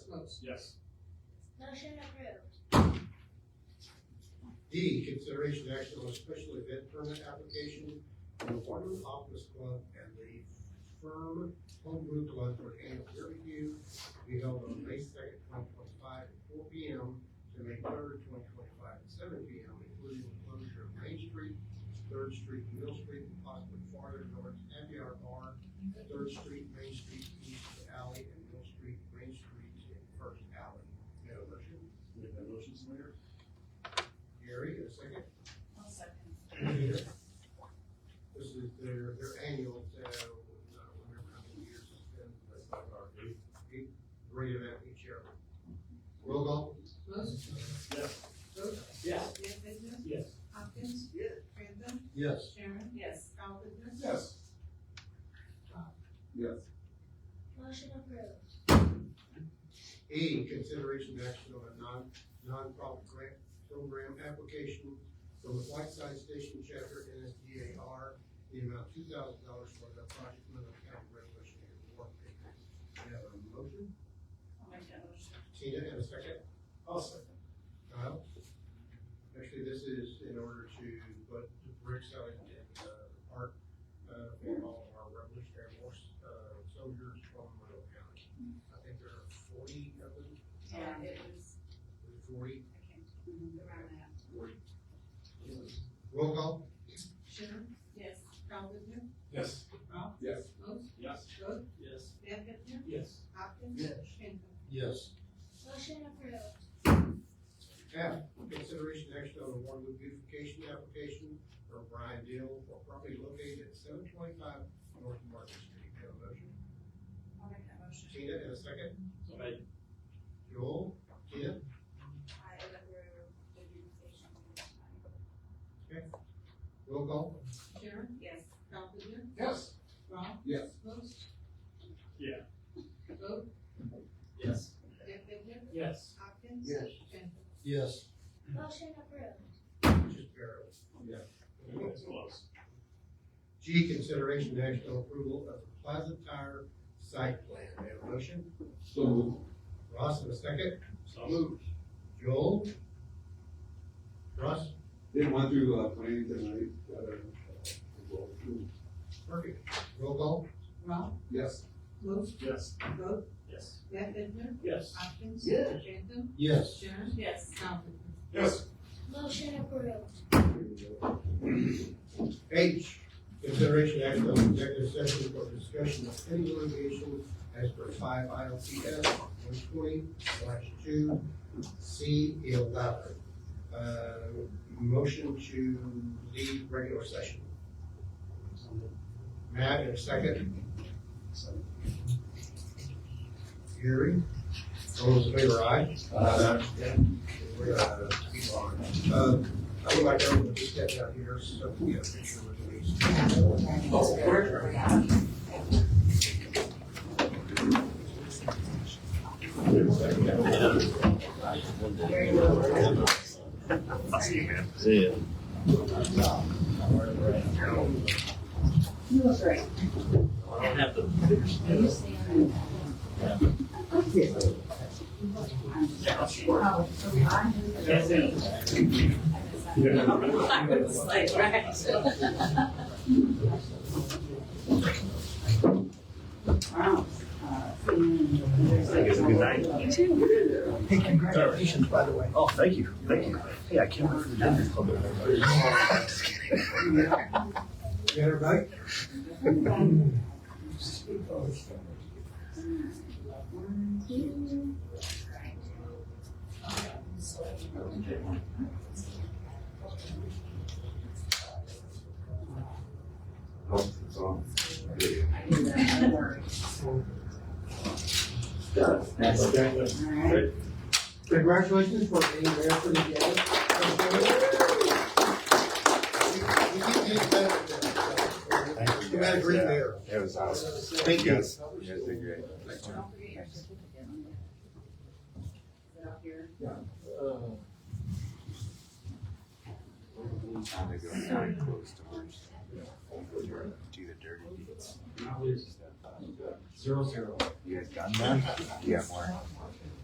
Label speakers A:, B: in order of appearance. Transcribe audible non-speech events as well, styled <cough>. A: Rose.
B: Yes.
C: Motion approved.
D: D, consideration action on a special event permit application for the Water Optimist Club and the firm Home Brew Club for annual beer review to be held on May second, twenty twenty-five, at four P M to May third, twenty twenty-five, at seven P M, including the closure of Main Street, Third Street, Middle Street, and possibly farther north, happy hour bar, Third Street, Main Street, East Alley, and Middle Street, Main Street, and First Alley. May I have a motion?
B: Make that motion, Mr. Mayor?
D: Gary, a second?
E: I'll second.
D: This is their, their annual, uh, I don't remember how many years it's been, but it's like our eighth, eighth great event each year. Roll call?
E: Rose.
B: Yes.
E: Rose.
B: Yes.
E: Lefferts.
B: Yes.
E: Hopkins.
B: Yes.
E: Franzen.
D: Yes.
E: Sharon. Yes. Calvin.
B: Yes. Yes.
C: Motion approved.
D: E, consideration action on a non, nonprofit grant program application from the Whiteside Station Chapter NSDAR, the amount two thousand dollars for the project Monroe County Resolution and War Paper. We have a motion,
E: I'll make that motion.
D: Tina, and a second?
B: I'll second.
D: Kyle? Actually, this is in order to put the bricks out in, in, uh, the park, uh, for all of our Revolutionary War, uh, soldiers from Monroe County. I think there are forty of them,
E: Yeah, it was,
D: forty.
E: I can't remember around that.
D: Roll call?
E: Sharon. Yes. Calvin.
B: Yes.
E: Ralph.
B: Yes.
E: Rose.
B: Yes.
E: Rose.
B: Yes.
E: Lefferts.
B: Yes.
E: Hopkins.
D: Yes.
E: Franzen.
D: Yes.
C: Motion approved.
D: F, consideration action on a Waterloo beautification application for Brian Deal for property located at seven twenty-five North Market Street. Have a motion?
E: I'll make that motion.
D: Tina, and a second.
B: So made.
D: Joel? Tina?
E: I, Lefferts, the beautification.
D: Roll call?
E: Sharon. Yes. Calvin.
D: Yes.
E: Ralph.
D: Yes.
E: Rose.
B: Yeah.
E: Rose.
B: Yes.
E: Lefferts.
B: Yes.
E: Hopkins.
D: Yes.
E: Franzen.
D: Yes.
C: Motion approved.
D: Just barely.
B: That's close.
D: G, consideration and action on approval of the Plaza Tire site plan. May I have a motion?
B: So moved.
D: Ross, in a second.
B: So moved.
D: Joel? Ross?
F: Didn't want to, uh, plan tonight, uh, well,
D: Perfect. Roll call?
E: Ralph.
F: yes,
E: Rose.
B: Yes.
E: Rose.
B: Yes.
E: Lefferts.
B: Yes.
E: Hopkins.
F: Yeah.
E: Franzen.
D: Yes.
E: Sharon. Yes. Calvin.
B: Yes.
C: Motion approved.
D: H, consideration and action on executive session for discussion of any litigation as per five ILCS one twenty slash two C eleven. Uh, motion to leave regular session. Matt, in a second. Gary, all those in favor, aye? Aye. We're, uh, uh, I would like everyone to step out here so we have a picture with these.
E: I was like, right.
G: Good night. You too.
A: Hey, congratulations, by the way.
G: Oh, thank you, thank you. Hey, I can't wait for the dinner club. Just kidding.
D: You everybody?
F: so.
D: Congratulations for being there for the day. We keep getting better at that.
F: Thank
D: You had a great mayor.
F: It was awesome.
D: Thank you.
F: Yes, You guys did great. They go very close to work. Do the dirty deeds.
B: Zero, zero. <laughs>
F: You guys got that? Yeah, more.